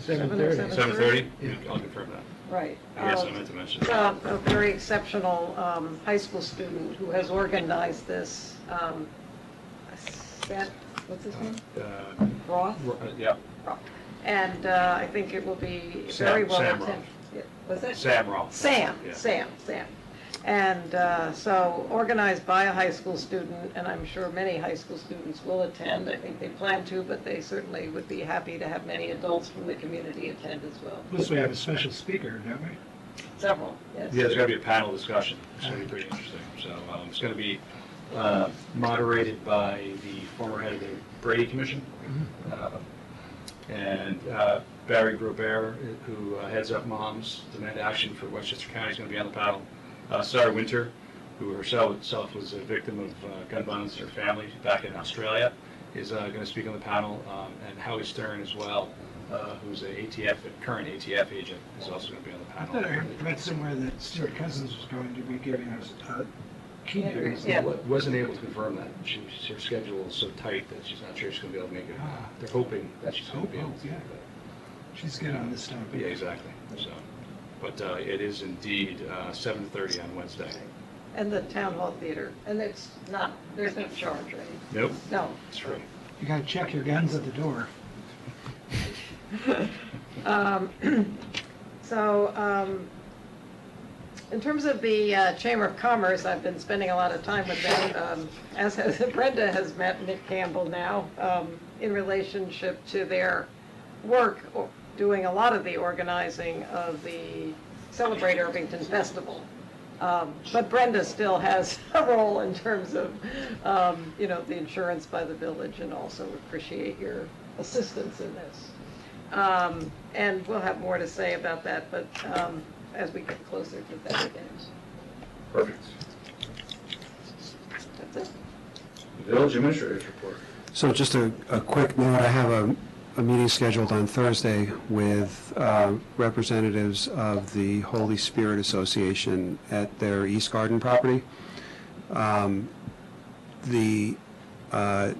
Seven or thirty. Seven 7:30? thirty? I'll confirm that. Right. Yes, Um, I meant to mention that. um, a very exceptional um, high school student who has organized this, um, Seth, what's his name? Uh, Roth? Yeah, Roth. And uh, I think it will be Sam- very well Sam attended. Was it? Sam Roth. Sam, Yeah. Sam, Sam. And uh, so organized by a high school student, and I'm sure many high school students will attend. I think they plan to, but they certainly would be happy to have many adults from the community attend as well. Plus, we have a special speaker, don't we? Several, yes. Yeah, there's going to be a panel discussion, it's going to be pretty interesting. So um, it's going to be uh, moderated by the former head of the Brady Commission, uh, Mm-hmm. and uh, Barry Grobert, who uh, heads up Moms Demand Action for Westchester County, is going to be on the panel. Uh, Sarah Winter, who herself herself was a victim of uh, gun violence in her family back in Australia, is going to speak on the panel, um, and Howie Stern as well, uh, who's a ATF, a current ATF agent, is also going to be on the I panel. thought I read somewhere that Stuart Cousins was going to be giving us uh, a keynote. Yeah. Wa- Wasn't able to confirm that. She, she- her schedule is so tight that she's not sure she's gonna be able to make it. Ah. They're hoping that she's gonna Hope, be able hope, to. yeah. She's good on this topic. but- Yeah, exactly, so. But uh, it is indeed uh, seven thirty on Wednesday. And the town hall theater, and it's not, there's no charge, right? Nope. No. It's free. You gotta check your guns at the door. Um, So, um, in terms of the uh, Chamber of Commerce, I've been spending a lot of time with them, um, as has Brenda has met Nick Campbell now, um, in relationship to their work, o- doing a lot of the organizing of the Celebrate Irvington Festival. Um, But Brenda still has a role in terms of, um, you know, the insurance by the village, and also appreciate your assistance in this. Um, And we'll have more to say about that, but um, as we get closer to that event. Perfect. That's it. Village administrator's report. So just a, a quick note, I have a, a meeting scheduled on Thursday with uh, representatives of the Holy Spirit Association at their East Garden property. Um, The uh,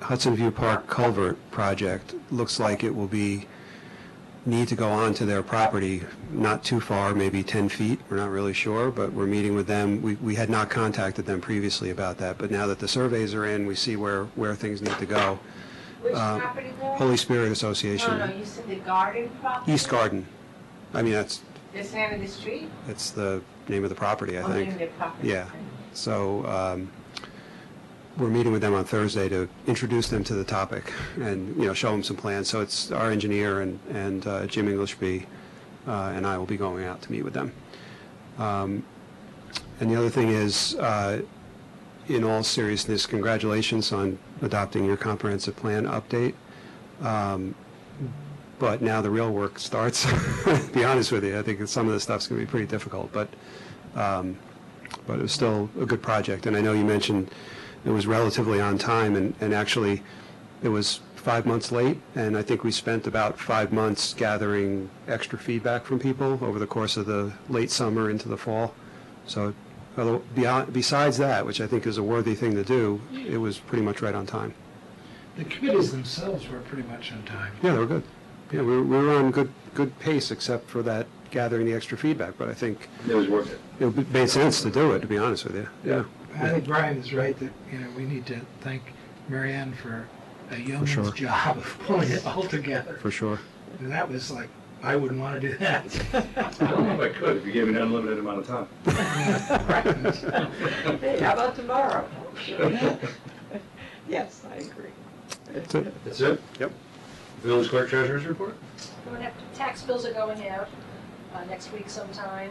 Hudson View Park culvert project looks like it will be, need to go onto their property, not too far, maybe 10 feet, we're not really sure, but we're meeting with them. We we had not contacted them previously about that, but now that the surveys are in, we see where, where things need to go. Which Uh, property there? Holy Spirit No, no, Association, you said the garden property? East Garden. I mean, that's, The side of the street? that's the name of the property, I Oh, think. in the property. Yeah. So um, we're meeting with them on Thursday to introduce them to the topic and, you know, show them some plans. So it's our engineer and and uh, Jim Englishby uh, and I will be going out to meet with them. Um, And the other thing is, uh, in all seriousness, congratulations on adopting your comprehensive plan update. Um, But now the real work starts, to be honest with you. I think some of this stuff's going to be pretty difficult, but um, but it was still a good project. And I know you mentioned it was relatively on time, and, and actually, it was five months late, and I think we spent about five months gathering extra feedback from people over the course of the late summer into the fall. So although beyond, besides that, which I think is a worthy thing to do, it was pretty much right on time. The committees themselves were pretty much on time. Yeah, they were good. Yeah, we were, we were on good, good pace, except for that gathering the extra feedback, but I think It was worth it. it made sense to do it, to be honest with you, yeah. I think Brian is right that, you know, we need to thank Marianne for a yeoman's sure. job of pulling it all together. For sure. And that was like, I wouldn't want to do that. I don't know if I could, if you gave me an unlimited amount of time. Hey, how about tomorrow? Yes, I agree. That's it. That's it? Yep. Village clerk treasurer's report? Don't have to- Tax bills are going out uh, next week sometime.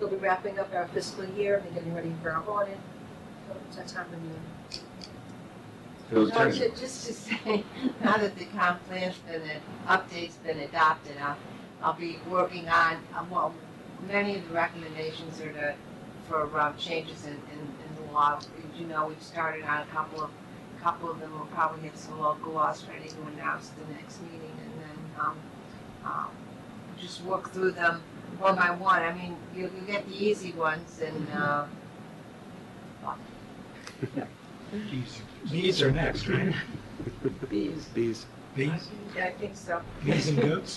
We'll be wrapping up our fiscal year and getting ready for our audit. So It's that time of year. Village No, attorney? ju- just to say, now that the comp plan's been, an update's been adopted, I'll, I'll be working on, um, well, many of the recommendations are to, for um, changes in, in, in the law. As you know, we've started on a couple of, couple of them, we'll probably have some local laws ready to announce at the next meeting, and then, um, um, just walk through them one by one. I mean, you, you get the easy ones, and, uh, Bees are next, right? Bees. Bees. Bees, Yeah, I think so. bees and goats?